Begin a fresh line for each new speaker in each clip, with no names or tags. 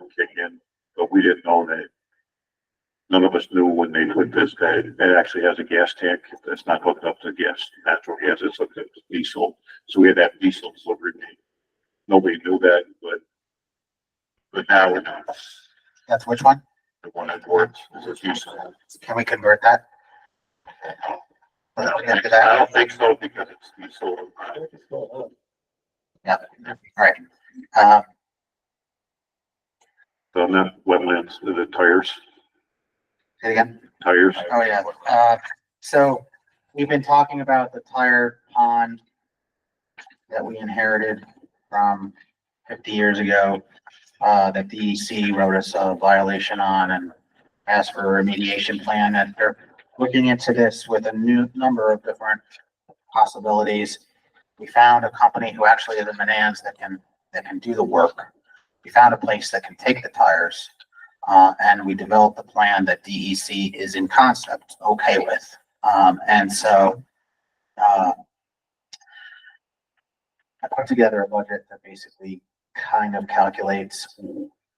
will kick in, but we didn't know that. None of us knew when they put this, that it actually has a gas tank, it's not hooked up to gas, natural gas, it's hooked up to diesel, so we had that diesel delivered. Nobody knew that, but. But now we know,
That's which one?
the one that works is a diesel.
Can we convert that?
I
Let's
don't
get to
think- I
that.
don't think so, because it's diesel.
Um,
So not wetlands, the tires,
say it again.
tires.
Oh, yeah, uh, so we've been talking about the tire pond that we inherited from fifty years ago, uh, that DEC wrote us a violation on and asked for a remediation plan, and they're looking into this with a new number of different possibilities. We found a company who actually is in Manans that can, that can do the work. We found a place that can take the tires. Uh, and we developed a plan that DEC is in concept okay with. Um, and so, uh, I put together a budget that basically kind of calculates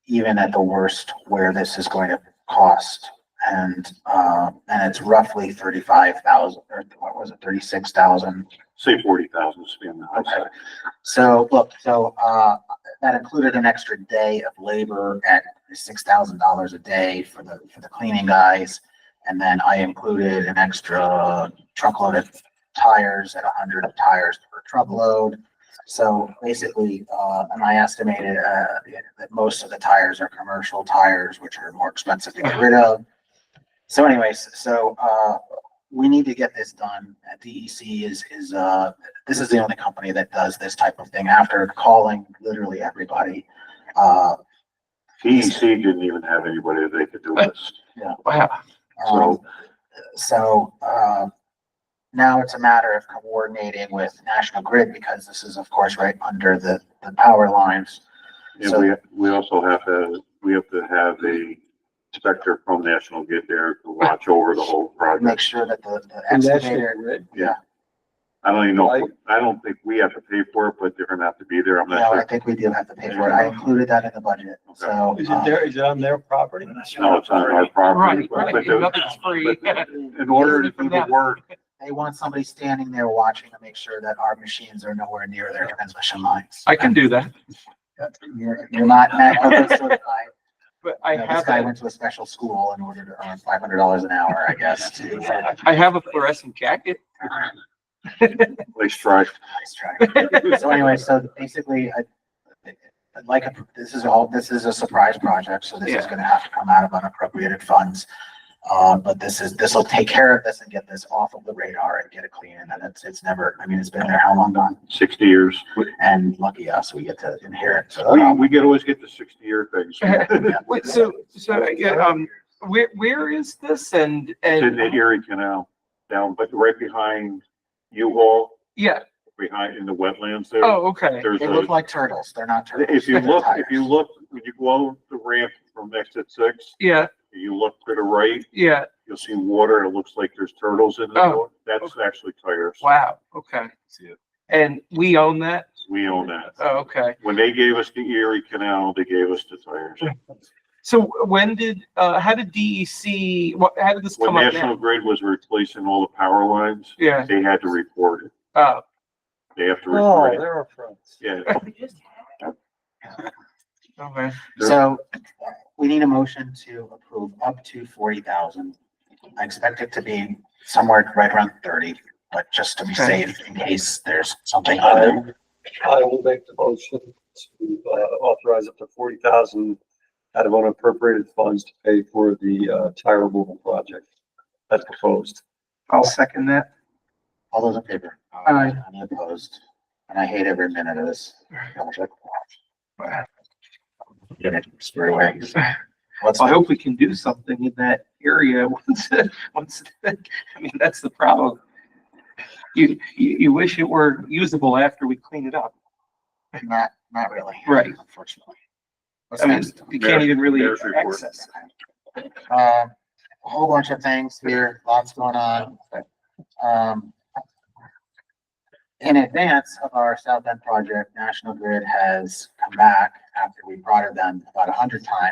even at the worst where this is going to cost. And, uh, and it's roughly thirty-five thousand, or what was it, thirty-six thousand
Say forty thousand, to be on the high
Okay.
side.
So, look, so, uh, that included an extra day of labor at six thousand dollars a day for the, for the cleaning guys. And then I included an extra truckload of tires at hundred tires per truckload. So basically, uh, and I estimated, uh, that most of the tires are commercial tires, which are more expensive to get rid of. So anyways, so, uh, we need to get this done. DEC is, is, uh, this is the only company that does this type of thing after calling literally everybody. Uh,
DEC E didn't even have anybody that they could do this,
Wow,
um,
so
so, uh, now it's a matter of coordinating with National Grid because this is of course right under the, the power lines.
And we, we also have to, we have to have a inspector from National get there to watch over the whole
Make
project.
sure that the the
And that's the
excavator,
grid?
I don't even know, I don't think we have to pay for it, but they're gonna have to be there, I'm
no, I
not
think we do have to pay for it. I included that in the budget, so.
Is it
uh,
there, is it on their property?
sure. No, it's on our property.
Right, right,
but the-
nothing's free.
but In order to do the work,
They want somebody standing there watching to make sure that our machines are nowhere near their transmission lines.
I can do that,
You're, you're not, Matt, certified.
but I
You know, This
have,
guy
a-
went to a special school in order to earn five hundred dollars an hour, I guess, to get a
I have a fluorescent jacket.
they strive.
nice track. So anyway, so basically, I, I'd like, a- this is all, this is a surprise project, so this is
Yeah.
gonna have to come out of unappropriated funds. Uh, but this is, this will take care of this and get this off of the radar and get it clean, and then it's, it's never, I mean, it's been there how long gone?
sixty years,
And lucky us, we get to inherit, so. um,
we, we get, always get the sixty-year things.
Wait, so, so, yeah, um, where, where is this and,
It's in the
and,
Erie Canal down, but right behind U-Haul,
yeah,
behind in the wetlands there.
oh, okay,
There's
They
a,
look like turtles, they're not turtles.
if you
they're
look,
tires.
if you look, when you go over the ramp from exit six,
yeah,
you look to the right,
yeah,
you'll see water. It looks like there's turtles in the
Oh.
water. That's actually tires.
wow, okay. And we own that?
We own that.
Oh, okay.
When they gave us the Erie Canal, they gave us the tires.
So when did, uh, how did DEC, what, how did this
When
come up now?
National Grid was replacing all the power lines,
Yeah,
they had to report it.
oh,
They have to
Oh,
report it.
there are fronts.
Yeah,
okay,
So we need a motion to approve up to forty thousand. I expect it to be somewhere right around thirty, but just to be
Okay.
safe in case there's something
I
other.
I will make the motion to uh, authorize up to forty thousand out of unappropriated funds to pay for the uh, tire removal project that's proposed.
I'll second that.
All those in favor?
Aye.
Any opposed? And I hate every minute of this. Double check. Get it squared away. Let's,
I hope we can do something in that area once, once, I mean, that's the problem. You, you, you wish it were usable after we clean it up.
not, not really.
Right.
Unfortunately. What's
I mean,
next?
you can't even really
Mayor's report.
access.
Um, a whole bunch of things here, lots going on. Um, in advance of our South End project, National Grid has come back after we prodded them about a hundred times